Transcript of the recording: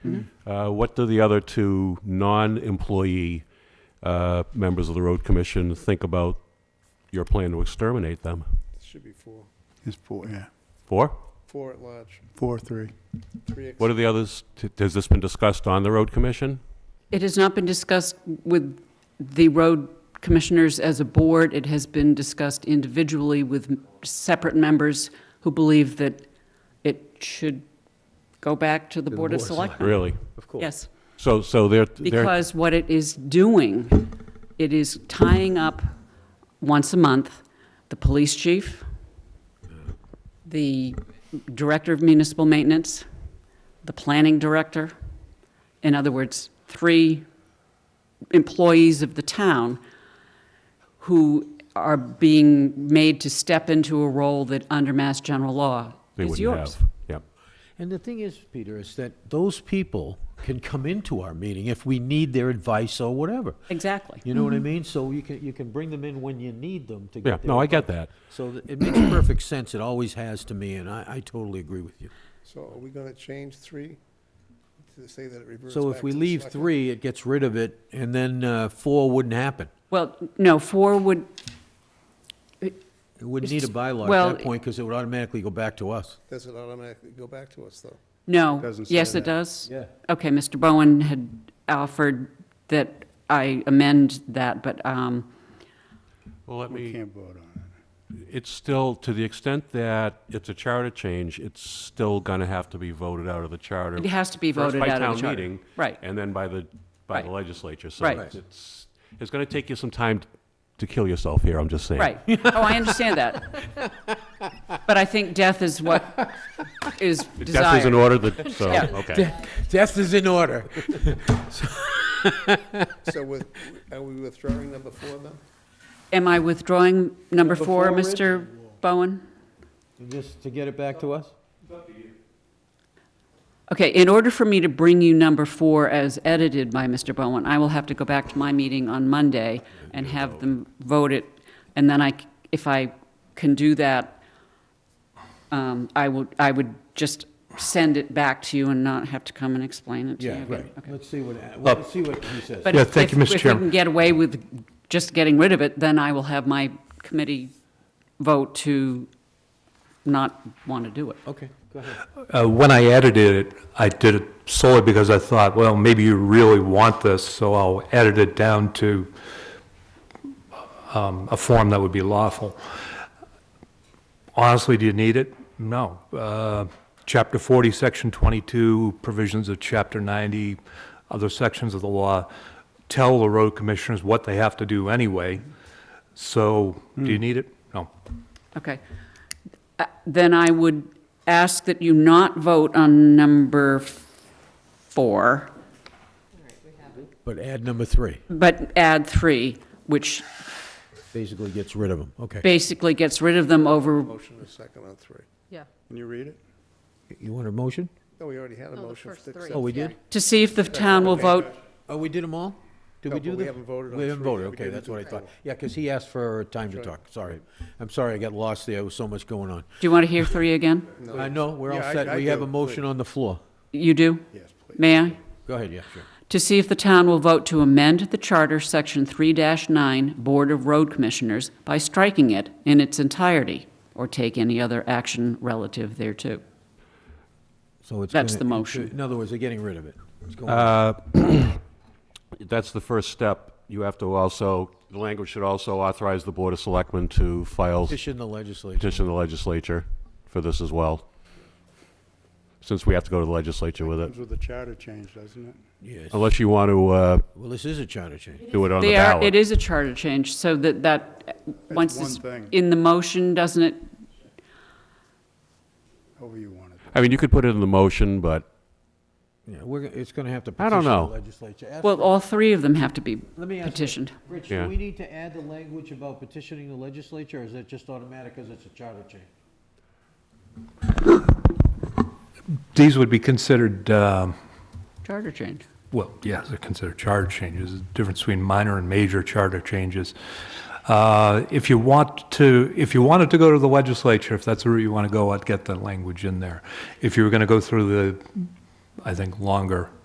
Uh, What do the other two non-employee uh, members of the road commission think about your plan to exterminate them? Should be four, It's four, yeah, Four? four at large, four, three. three. ex- What are the others? T- Has this been discussed on the road commission? It has not been discussed with the road commissioners as a board. It has been discussed individually with separate members who believe that it should go back to the the Board of Board of Selectmen. Really? Of course. Yes, So, so they're, they're, because what it is doing, it is tying up once a month the police chief, the director of municipal maintenance, the planning director. In other words, three employees of the town who are being made to step into a role that under Mass General Law they is wouldn't yours. have. Yeah. And the thing is, Peter, is that those people can come into our meeting if we need their advice or whatever. Exactly. You know what I mean? So you can, you can bring them in when you need them to Yeah, get their. no, I get that. So th- it makes perfect sense. It always has to me, and I, I totally agree with you. So are we gonna change three to say that it reverts So back if we to the leave selectmen? three, it gets rid of it, and then, uh, four wouldn't happen. Well, no, four would, It wouldn't need a bylaw Well, at that point, because it would automatically go back to us. Does it automatically go back to us, though? No. Doesn't say Yes, that. it does? Yeah. Okay, Mr. Bowen had offered that I amend that, but um, Well, let We me. can't vote on it. it's still, to the extent that it's a charter change, it's still gonna have to be voted out of the charter. It has to be First voted by out of the town charter. meeting, Right. And then by the, by the Right. legislature, so Right. it's, it's gonna take you some time to kill yourself here, I'm just saying. right. Oh, I understand that. But I think death is what is Death is in desired. order, that, so, Yeah. okay. Death is in order. So with, are we withdrawing number four then? Am I withdrawing number Number four, four, Rich? Mr. Bowen? Just to get it back to us? Okay, in order for me to bring you number four as edited by Mr. Bowen, I will have to go back to my meeting on Monday and have them vote it, and then I, c- if I can do that, um, I would, I would just send it back to you and not have to come and explain it to you Yeah, again. right. Oh. Okay. Let's see what, let's see what he says. But Yeah, if- thank you, if- Mr. If we Chairman. can get away with just getting rid of it, then I will have my committee vote to not want to do it. Okay, go ahead. Uh, When I edited it, I did it solely because I thought, well, maybe you really want this, so I'll edit it down to um, a form that would be lawful. Honestly, do you need it? No. Uh, Chapter 40, Section 22, provisions of Chapter 90, other sections of the law tell the road commissioners what they have to do anyway. So, do you need it? No. Okay. Uh, Then I would ask that you not vote on number f- four, But add number three, but add three, which basically gets rid of them, okay. basically gets rid of them over, Motion is second on three. Can you read it? You want a motion? No, we already had a No, the motion. first to three. accept Oh, we Yeah. did? to see if the town will vote. Oh, we did them all? Did No, we but do we them? haven't voted on We haven't three yet. voted, We okay, didn't that's do what I thought. four. Yeah, because he asked for time to talk, sorry. I'm sorry, I got lost there, there was so much going on. Do you want to hear three again? I know, we're all Yeah, I- set, I we have do, a motion on the floor. You do? Yes, please. May I? Go ahead, yeah, sure. To see if the town will vote to amend the charter, Section 3-9, Board of Road Commissioners, by striking it in its entirety, or take any other action relative thereto. So it's. That's gonna- the motion. In other words, they're getting rid of it. It's going- Uh, That's the first step. You have to also, the language should also authorize the Board of Selectmen to file, Petition the legislature. petition the legislature for this as well, since we have to go to the legislature with it, Comes with the charter change, doesn't it? Yes, unless you want to uh, well, this is a charter change. do it on the They are, ballot. it is a charter change, so that, that, uh, once one it's thing. in the motion, doesn't it? However you want it. I mean, you could put it in the motion, but Yeah, we're, gonna- it's gonna have to I don't petition the know. legislature. Ask Well, all three of them have to be Let me ask you. petitioned. Rich, Yeah. do we need to add the language about petitioning the legislature, or is that just automatic because it's a charter change? These would be considered um, Charter change. well, yes, they're considered charter changes, the difference between minor and major charter changes. Uh, If you want to, if you wanted to go to the legislature, if that's the route you want to go, I'd get the language in there. If you were going to go through the, I think, longer